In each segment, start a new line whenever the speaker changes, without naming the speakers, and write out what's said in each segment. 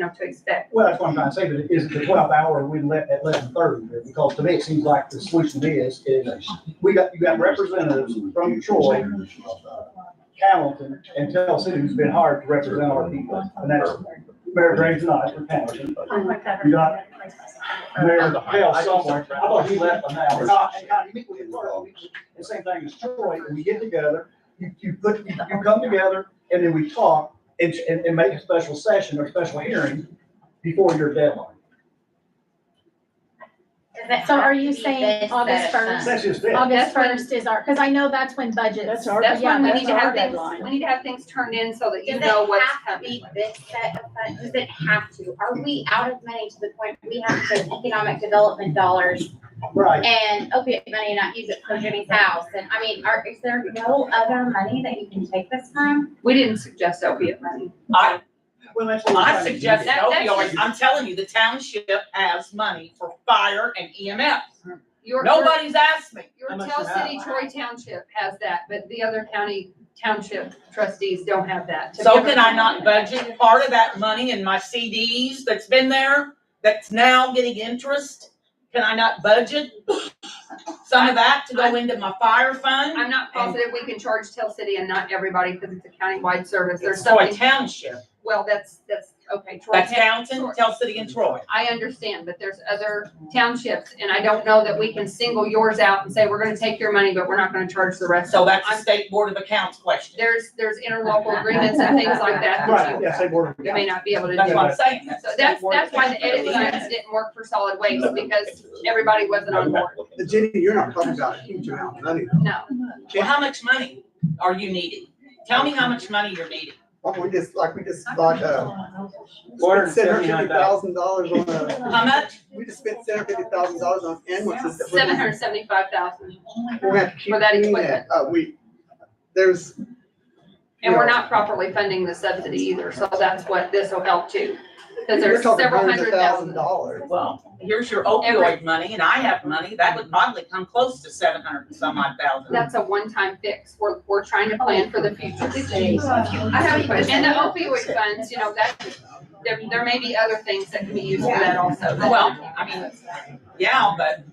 know, to expect.
Well, that's what I'm trying to say, but is it the twelve hour we let at eleven thirty? Because to me, it seems like the solution is, is we got, you got representatives from Troy, Hamilton, and Tell City who's been hired to represent our people. And that's Mayor Graves not for Hamilton. You got Mayor Tell somewhere. I thought he left an hour. No, and God, you meet with him tomorrow. The same thing as Troy, we get together, you, you put, you you come together, and then we talk and, and, and make a special session or special hearing before your deadline.
So are you saying August first?
That's just it.
August
That's when-
first is our, because I know that's when budgets.
That's our-
That's
Yeah,
when we
that's
need to
our
have things,
deadline.
we need to have things turned in so that you
Does
know
it
what's
have to
coming.
be this set of funds? Does it have to? Are we out of money to the point we have to economic development dollars
Right.
and opiate money and not use it for Jimmy's house? And I mean, are, is there no other money that you can take this from?
We didn't suggest opiate money.
I,
Well, that's what
I
I'm trying to
suggest
do.
That- that's
opioids,
just-
I'm telling you, the township has money for fire and EMS.
Your-
Nobody's asked me.
Your
How much
Tell
is that?
City Troy Township has that, but the other county township trustees don't have that. to
So
give
can
us.
I not budget part of that money in my CDs that's been there, that's now getting interest? Can I not budget some of that to go into my fire fund?
I'm not positive we can charge Tell City and not everybody because it's a countywide service. There's
It's Troy
something,
Township,
well, that's, that's, okay, Troy.
that's
Town-
Downton, Tell City and Troy.
I understand, but there's other townships and I don't know that we can single yours out and say, we're gonna take your money, but we're not gonna charge the rest.
So that's a
I'm-
state board of accounts question.
There's, there's interlocal agreements and things like that. that
Right,
you-
yeah, say board of
You may not be able to do.
That's what I'm saying.
So that's, that's why the edit signs didn't work for solid waste because everybody wasn't on board.
But Jenny, you're not talking about a huge amount of money.
No.
Well, how much money are you needing? Tell me how much money you're needing.
Like we just, like we just, like, uh,
Water
spent seven hundred fifty thousand dollars on a,
How much?
we just spent seven hundred fifty thousand dollars on ambulances. that we're
Seven
gonna-
hundred seventy-five thousand,
We're gonna have to keep
For that
doing
equipment.
that. Uh, we, there's,
and we're not properly funding the subsidy either, so that's what this will help too. Because
we're
there's
talking
several
hundreds
hundred
of thousand
thousand.
dollars.
Well, here's your opioid money and I have money. That would probably come close to seven hundred and some odd thousand.
That's a one-time fix. We're, we're trying to plan for the future.
I
And the opioid funds, you know, that, there, there may be other things that can be used for that also.
Well, I mean, yeah, but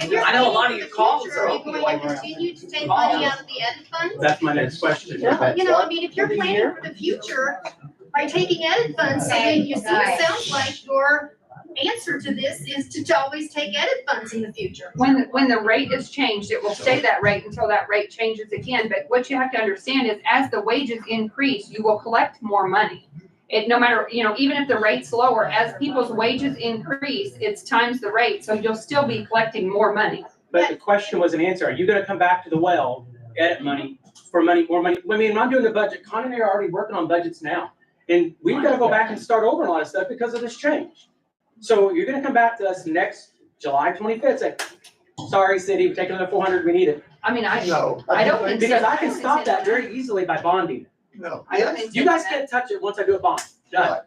I know a lot of your calls are
Are you going to continue to take money out of the ed fund?
That's my next question.
You know, I mean, if you're planning for the future by taking ed funds, I mean, you see, it sounds like your answer to this is to always take ed funds in the future.
When, when the rate is changed, it will stay that rate until that rate changes again, but what you have to understand is as the wages increase, you will collect more money. It, no matter, you know, even if the rate's lower, as people's wages increase, it's times the rate, so you'll still be collecting more money.
But the question was an answer. Are you gonna come back to the well, edit money, for money, more money? I mean, when I'm doing the budget, Con and I are already working on budgets now. And we've gotta go back and start over on a lot of stuff because of this change. So you're gonna come back to us next July twenty-fifth, say, sorry, city, we're taking another four hundred, we need it.
I mean, I,
No.
I don't think-
Because I can stop that very easily by bonding.
No.
I don't intend.
You guys
that.
can't touch it once I do a bond. Done.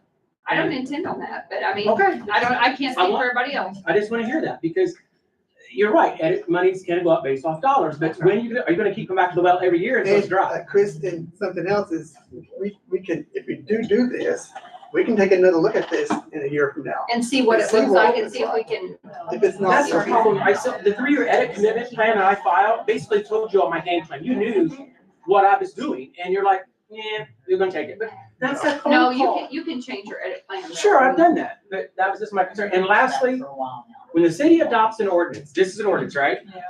I don't intend on that, but I mean,
Okay.
I don't, I can't
I
speak for
want-
everybody else.
I just wanna hear that, because you're right, edit money's gonna go up based off dollars, but when you, are you gonna keep coming back to the well every year and so it's
And,
dry?
uh, Chris, and something else is, we, we can, if we do do this, we can take another look at this in a year from now.
And see what it
See
looks
what
like
it
and see if we can,
If it's not.
That's the problem, I said, the three-year edit commitment plan that I filed basically told you all my game plan, you knew what I was doing, and you're like, yeah, you're gonna take it, but that's a
no,
cold
you
call.
can, you can change your edit plan.
Sure, I've done that, but that was just my concern, and lastly, when the city adopts an ordinance, this is an ordinance, right?
Yeah.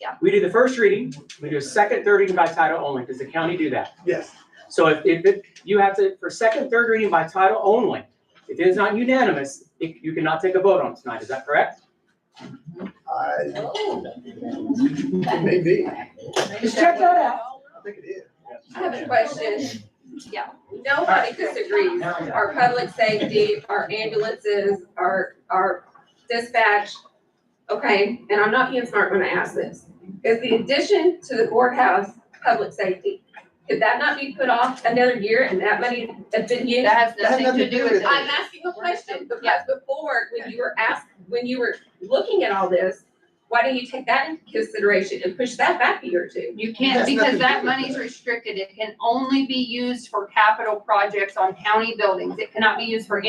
Yeah.
We do the first reading, we do a second, third reading by title only, does the county do that?
Yes.
So if, if, it- you have to, for second, third reading by title only, if it is not unanimous, it- you cannot take a vote on it tonight, is that correct?
I- It may be. I
Just check that out.
think it is.
I have a question.
Yeah.
Nobody disagrees. Our public safety, our ambulances, our, our dispatch. Okay, and I'm not being smart when I ask this. Is the addition to the courthouse public safety, could that not be put off another year and that money have been used?
That has
That has
nothing to do with it.
I'm asking a question because before, when you were asked, when you were looking at all this, why don't you take that into consideration and push that back a year or two?
You
It
can't,
has
because
nothing to
that
do with
money's
that.
restricted, it can only be used for capital projects on county buildings, it cannot be used for